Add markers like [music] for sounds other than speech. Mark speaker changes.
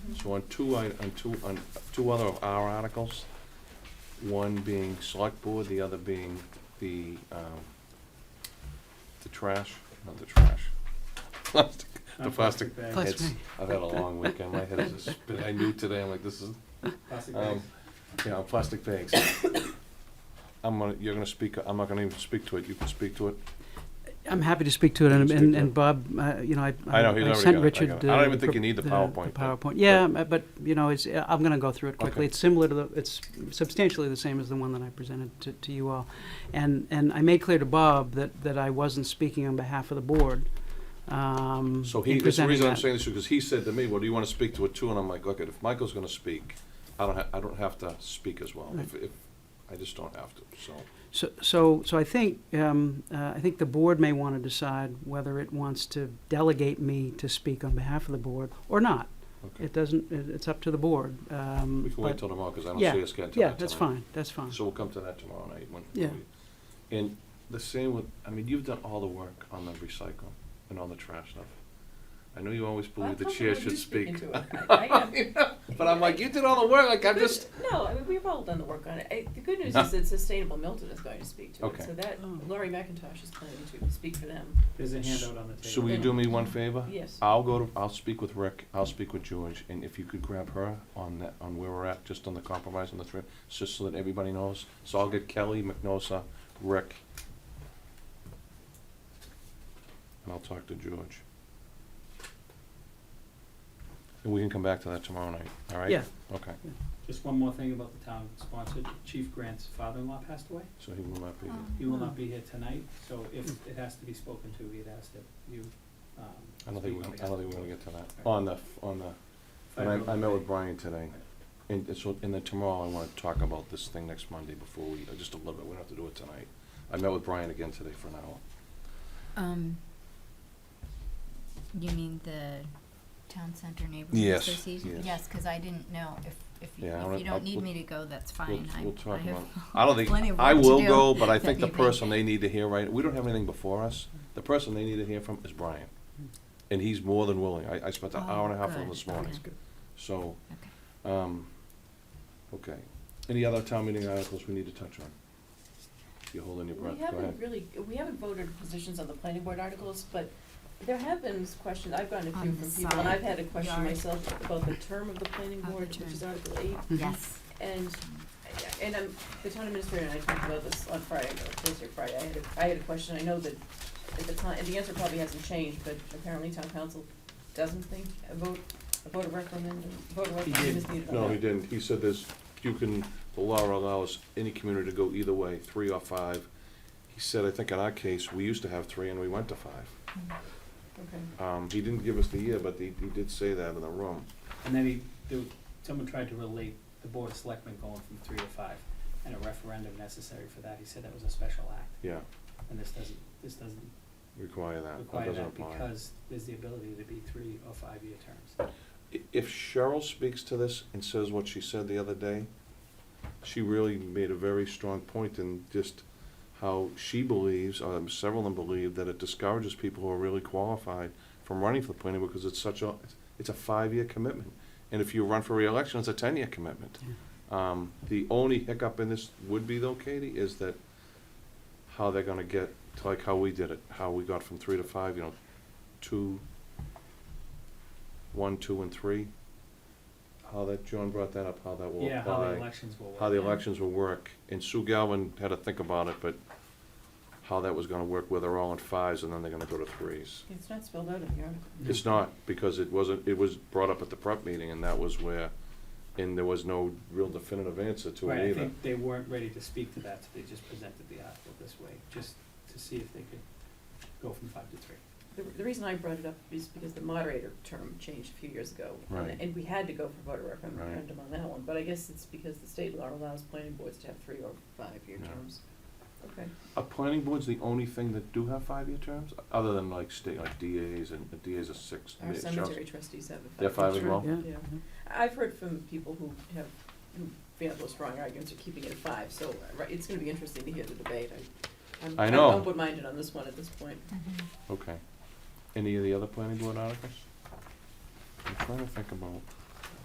Speaker 1: So on two, i- on two, on two other of our articles, one being select board, the other being the, um, the trash, not the trash. Plastic, the
Speaker 2: Uh,
Speaker 1: plastic.
Speaker 2: bag.
Speaker 3: Plastic.
Speaker 1: It's- I've had a long weekend, my head is, a spin. I knew today, I'm like, this is,
Speaker 2: Plastic
Speaker 1: um,
Speaker 2: bags.
Speaker 1: you know, plastic bags. I'm gonna, you're gonna speak, I'm not gonna even speak to it, you can speak to it.
Speaker 3: I'm happy to speak to it, and,
Speaker 1: Speak
Speaker 3: and,
Speaker 1: to it.
Speaker 3: and Bob, uh, you know, I,
Speaker 1: I know, he's already
Speaker 3: sent
Speaker 1: got it, I
Speaker 3: Richard.
Speaker 1: got it. I don't
Speaker 3: uh,
Speaker 1: even think you need the
Speaker 3: the-
Speaker 1: PowerPoint,
Speaker 3: The
Speaker 1: but-
Speaker 3: PowerPoint, yeah, uh, but, you know, it's, uh, I'm gonna go through it quickly.
Speaker 1: Okay.
Speaker 3: It's similar to the, it's substantially the same as the one that I presented to, to you all. And, and I made clear to Bob that, that I wasn't speaking on behalf of the board, um,
Speaker 1: So he,
Speaker 3: in
Speaker 1: that's the
Speaker 3: presenting
Speaker 1: reason I'm
Speaker 3: that.
Speaker 1: saying this, because he said to me, well, do you wanna speak to it too? And I'm like, look, if Michael's gonna speak, I don't ha- I don't have to speak as well, if, if, I just don't have to, so.
Speaker 3: So, so, so I think, um, uh, I think the board may want to decide whether it wants to delegate me to speak on behalf of the board or not.
Speaker 1: Okay.
Speaker 3: It doesn't, it- it's up to the board. um,
Speaker 1: We can wait
Speaker 3: but-
Speaker 1: till tomorrow, because I don't
Speaker 3: Yeah,
Speaker 1: see us getting to that
Speaker 3: Yeah, that's
Speaker 1: tonight.
Speaker 3: fine, that's fine.
Speaker 1: So we'll come to that tomorrow night when.
Speaker 3: Yeah.
Speaker 1: we- And the same with, I mean, you've done all the work on the recycle and all the trash stuff. I know you always believe the chair should speak, [laughs] but I'm like, you did all the work, like, I'm just,
Speaker 4: No, I mean, we've all done the work on it. I- The good news is that Sustainable Milton is going to speak to it,
Speaker 1: Okay.
Speaker 4: so that,
Speaker 3: Oh.
Speaker 4: Laurie McIntosh is planning to speak for them.
Speaker 2: There's a handout on the table.
Speaker 1: so will you do me one favor?
Speaker 4: Yes.
Speaker 1: I'll go to, I'll speak with Rick, I'll speak with George, and if you could grab her on that, on where we're at, just on the compromise on the three, just so that everybody knows. So I'll get Kelly, McNosa, Rick. And I'll talk to George. And we can come back to that tomorrow night, all right?
Speaker 3: Yeah,
Speaker 1: Okay,
Speaker 2: Just one more thing about the town sponsored. Chief Grant's father-in-law passed away.
Speaker 1: so he will not be here.
Speaker 2: He will not be here tonight, so if it has to be spoken to, he'd ask that you, um.
Speaker 1: I don't think, we're
Speaker 2: speak
Speaker 1: gonna-
Speaker 2: on
Speaker 1: I don't think
Speaker 2: behalf
Speaker 1: we're gonna get to that.
Speaker 2: Okay.
Speaker 1: On the, f- on the,
Speaker 2: of-
Speaker 1: and I, I met with Brian today. And it's, and then tomorrow I wanna talk about this thing next Monday before we, uh, just a little bit, we don't have to do it tonight. I met with Brian again today for an hour.
Speaker 5: Um, you mean the town center neighborhood
Speaker 1: Yes,
Speaker 5: association?
Speaker 1: yes.
Speaker 5: Yes, because I didn't know if, if, you-
Speaker 1: Yeah, I
Speaker 5: if
Speaker 1: don't-
Speaker 5: you
Speaker 1: I'll-
Speaker 5: don't need
Speaker 1: we'll-
Speaker 5: me to go, that's
Speaker 1: We'll,
Speaker 5: fine. I-
Speaker 1: we'll talk
Speaker 5: I have [laughs]
Speaker 1: about, I don't
Speaker 5: plenty of
Speaker 1: think, I
Speaker 5: work to
Speaker 1: will
Speaker 5: do
Speaker 1: go,
Speaker 5: [laughs]
Speaker 1: but I
Speaker 5: that
Speaker 1: think the
Speaker 5: evening.
Speaker 1: person they need to hear, right, we don't have anything before us. The person they need to hear from is Brian. And he's more than willing. I, I spent an hour and a half with him
Speaker 5: Oh,
Speaker 1: this
Speaker 5: good,
Speaker 1: morning,
Speaker 5: okay.
Speaker 1: so,
Speaker 5: Okay.
Speaker 1: um, okay. Any other town meeting articles we need to touch on? You're holding your breath,
Speaker 4: We
Speaker 1: go ahead.
Speaker 4: haven't really, we haven't voted positions on the planning board articles, but there have been s- questions, I've gotten a
Speaker 5: On
Speaker 4: few
Speaker 5: the
Speaker 4: from people, and
Speaker 5: side
Speaker 4: I've had a question
Speaker 5: yard.
Speaker 4: myself about the term of the planning
Speaker 5: Of the
Speaker 4: board, which is
Speaker 5: term.
Speaker 4: Article eight.
Speaker 3: Mhm.
Speaker 5: Yes.
Speaker 4: And, and I'm, the town administrator and I talked about this on Friday, or Thursday, or Friday, I had a, I had a question, I know that at the time, and the answer probably hasn't changed, but apparently town council doesn't think a vote, a vote of recommend, a vote of recommend is needed.
Speaker 1: No, he didn't. He said there's, you can, the law allows any community to go either way, three or five. He said, I think in our case, we used to have three and we went to five.
Speaker 4: Okay,
Speaker 1: Um, he didn't give us the year, but he, he did say that in the room.
Speaker 2: And then he, there, was- someone tried to relate the board of selectmen going from three to five, and a referendum necessary for that. He said that was a special act,
Speaker 1: Yeah,
Speaker 2: and this doesn't, this doesn't
Speaker 1: require that. That
Speaker 2: require
Speaker 1: doesn't
Speaker 2: that
Speaker 1: apply.
Speaker 2: because there's the ability to be three or five-year terms.
Speaker 1: I- If Cheryl speaks to this and says what she said the other day, she really made a very strong point in just how she believes, um, several of them believe, that it discourages people who are really qualified from running for the planning board because it's such a, it's a five-year commitment. And if you run for reelection, it's a ten-year commitment. Um, the only hiccup in this would be though, Katie, is that how they're gonna get, to like how we did it, how we got from three to five, you know, two, one, two, and three. How that, John brought that up, how that will apply
Speaker 2: Yeah, how the elections will work.
Speaker 1: how the elections will work, and Sue Galvin had to think about it, but how that was gonna work, where they're all in fives and then they're gonna go to threes.
Speaker 4: it's not spelled out in the article.
Speaker 2: Mm-hmm.
Speaker 1: It's not, because it wasn't, it was brought up at the prep meeting, and that was where, and there was no real definitive answer to
Speaker 2: Right,
Speaker 1: it
Speaker 2: I
Speaker 1: either.
Speaker 2: think they weren't ready to speak to that, so they just presented the article this way, just to see if they could go from five to three.
Speaker 4: The, the reason I brought it up is because the moderator term changed a few years ago. and-
Speaker 1: Right.
Speaker 4: And we had to go for voter
Speaker 1: Right.
Speaker 4: referendum on that one, but I guess it's because the state law allows planning boards to have three or five-year
Speaker 1: Yeah.
Speaker 4: terms. Okay.
Speaker 1: Are planning boards the only thing that do have five-year terms, other than like state, like DAs, and DAs are six.
Speaker 4: Our
Speaker 1: sheriffs-
Speaker 4: cemetery trustees have a five.
Speaker 1: They're five as
Speaker 3: Sure,
Speaker 1: well?
Speaker 3: Yeah.
Speaker 4: Yeah. I've heard from people who have, who feel those strong arguments are keeping it at five, so uh, right, it's gonna be interesting to hear the debate. I- I'm-
Speaker 1: I know.
Speaker 4: I'm open-minded on this one at this point.
Speaker 5: Mhm.
Speaker 1: Okay. Any of the other planning board articles? I'm trying to think about,